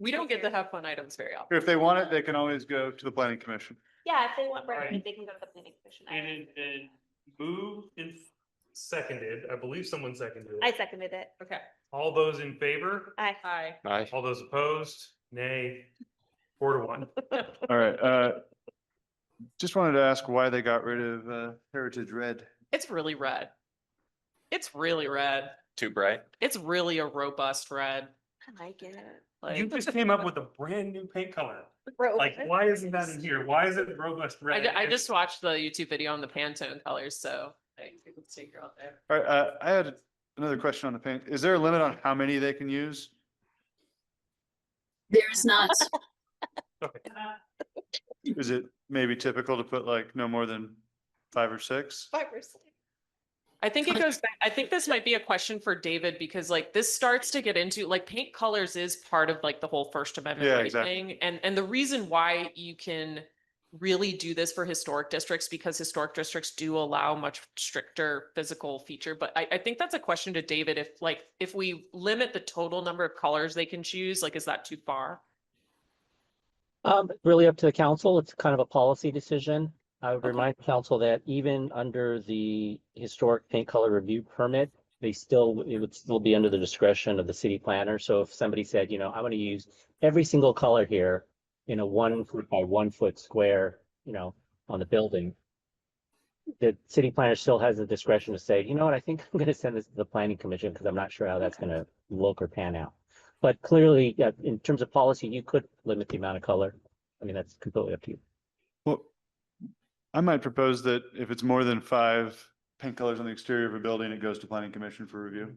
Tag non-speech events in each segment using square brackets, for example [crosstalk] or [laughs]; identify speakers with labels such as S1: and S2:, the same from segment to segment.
S1: We don't get to have fun items very often.
S2: If they want it, they can always go to the planning commission.
S3: Yeah, if they want
S4: Right.
S3: brownies, they can go to the planning commission. I-
S4: And it, and moved and seconded, I believe someone seconded
S3: I
S4: it.
S3: seconded it.
S1: Okay,
S4: All those in favor?
S3: I,
S1: hi.
S5: Aye.
S4: All those opposed? Nay. Four
S1: [laughs]
S4: to one.
S2: All right, uh, just wanted to ask why they got rid of, uh, Heritage Red.
S1: It's really red. It's really red.
S5: Too bright.
S1: It's really a robust red.
S3: I like it.
S1: Like,
S4: You just came up with a brand new paint color.
S3: Bro,
S4: Like, why isn't that in here? Why is it robust
S1: I,
S4: red?
S1: ju- I just watched the YouTube video on the Pantone colors, so like, you can figure out there.
S2: All right, uh, I had another question on the paint. Is there a limit on how many they can use?
S6: There's not,
S2: Is it maybe typical to put like no more than five or six?
S3: Fibrous.
S1: I think it goes back, I think this might be a question for David because like this starts to get into like paint colors is part of like the whole First Amendment
S2: Yeah,
S1: right
S2: exactly.
S1: thing. And and the reason why you can really do this for historic districts because historic districts do allow much stricter physical feature. But I, I think that's a question to David if like if we limit the total number of colors they can choose, like is that too far?
S7: Um, it's really up to the council. It's kind of a policy decision. I would
S1: Okay.
S7: remind council that even under the historic paint color review permit, they still, it would still be under the discretion of the city planner. So if somebody said, you know, I want to use every single color here in a one foot by one foot square, you know, on the building, the city planner still has the discretion to say, you know what, I think I'm going to send this to the planning commission because I'm not sure how that's going to look or pan out. But clearly, yeah, in terms of policy, you could limit the amount of color. I mean, that's completely up to you.
S2: Well, I might propose that if it's more than five paint colors on the exterior of a building, it goes to planning commission for review.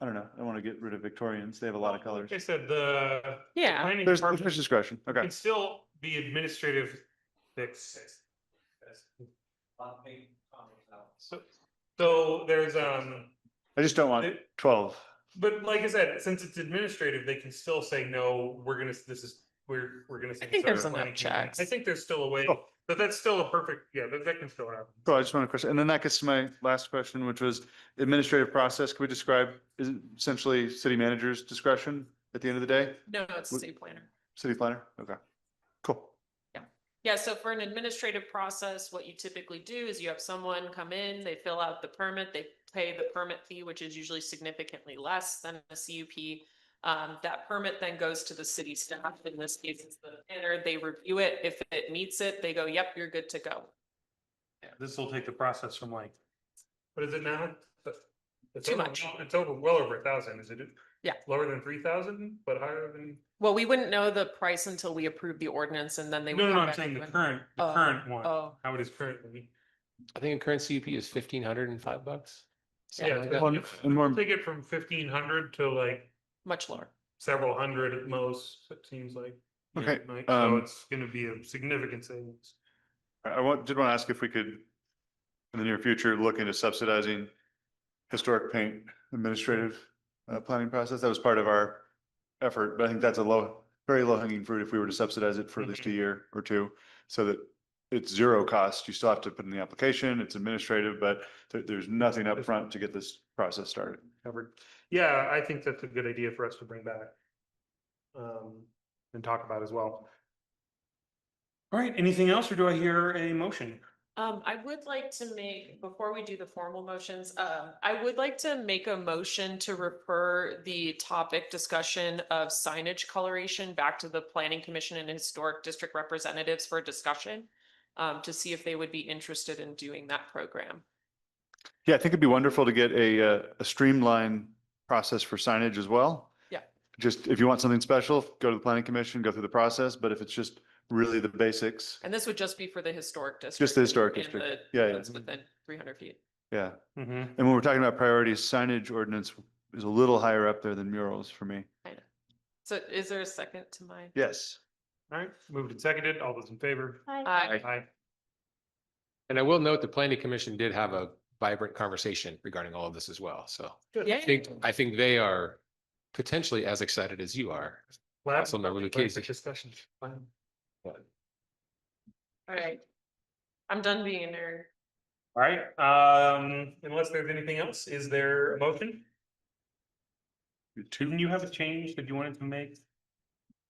S2: I don't know. I want to get rid of Victorians. They have a lot of colors.
S4: Like I said, the. the
S1: Yeah.
S4: planning
S2: There's,
S4: department
S2: there's discretion. Okay.
S4: Can still be administrative fix. So, so there's, um,
S2: I just don't want
S4: there-
S2: twelve.
S4: but like I said, since it's administrative, they can still say, no, we're gonna, this is, we're, we're gonna.
S1: I think there's enough
S4: something.
S1: checks.
S4: I think there's still a way,
S2: Oh.
S4: but that's still a perfect, yeah, that, that can still happen.
S2: So I just want to question, and then that gets to my last question, which was administrative process. Can we describe is it essentially city manager's discretion at the end of the day?
S1: No, no, it's
S2: Would-
S1: city planner.
S2: City planner? Okay. Cool.
S1: Yeah, so for an administrative process, what you typically do is you have someone come in, they fill out the permit, they pay the permit fee, which is usually significantly less than a CUP. Um, that permit then goes to the city staff, in this case, it's the planner, they review it, if it meets it, they go, yep, you're good to go.
S4: This will take the process from like. What is it now? It's
S1: Too
S4: over-
S1: much.
S4: It's over, well over a thousand, is it?
S1: Yeah.
S4: Lower than three thousand, but higher than.
S1: Well, we wouldn't know the price until we approve the ordinance and then they would.
S4: No, no,
S1: come
S4: no, I'm
S1: back
S4: saying the
S1: and-
S4: current, the
S1: Oh,
S4: current one,
S1: Oh,
S4: how it is currently.
S5: I think a current CUP is fifteen hundred and five bucks. something
S4: Yeah,
S5: like
S4: but
S5: that.
S2: Well, and more,
S4: Take it from fifteen hundred to like
S1: much lower.
S4: several hundred at most, it seems like. you know,
S2: Okay,
S4: like,
S2: um,
S4: So it's gonna be a significant savings.
S2: I want, did want to ask if we could, in the near future, look into subsidizing historic paint administrative uh, planning process. That was part of our effort, but I think that's a low, very low hanging fruit if we were to subsidize it for at least a year or two. So that it's zero cost. You still have to put in the application. It's administrative, but there, there's nothing upfront to get this process started.
S4: Covered. Yeah, I think that's a good idea for us to bring back. Um, and talk about as well. All right, anything else or do I hear a motion?
S1: Um, I would like to make, before we do the formal motions, um, I would like to make a motion to refer the topic discussion of signage coloration back to the planning commission and historic district representatives for discussion. Um, to see if they would be interested in doing that program.
S2: Yeah, I think it'd be wonderful to get a, uh, a streamlined process for signage as well.
S1: Yeah.
S2: Just if you want something special, go to the planning commission, go through the process, but if it's just really the basics,
S1: And this would just be for the historic district.
S2: just the historic
S1: and
S2: district.
S1: the
S2: Yeah, yeah,
S1: ones Within three hundred feet.
S2: yeah. And when we're talking about priorities, signage ordinance is a little higher up there than murals for me.
S1: So is there a second to my?
S2: Yes.
S4: All right, moved and seconded. All those in favor?
S3: I,
S1: Aye.
S4: Aye.
S5: And I will note the planning commission did have a vibrant conversation regarding all of this as well. So
S4: Good.
S1: Yeah.
S5: I think, I think they are potentially as excited as you are.
S4: Lab-
S5: Councilmember
S4: Lab-
S5: Lucchese.
S4: Discussion. Fine.
S1: All right. I'm done being a nerd.
S4: All right, um, unless there's anything else, is there a motion? Didn't you have a change that you wanted to make?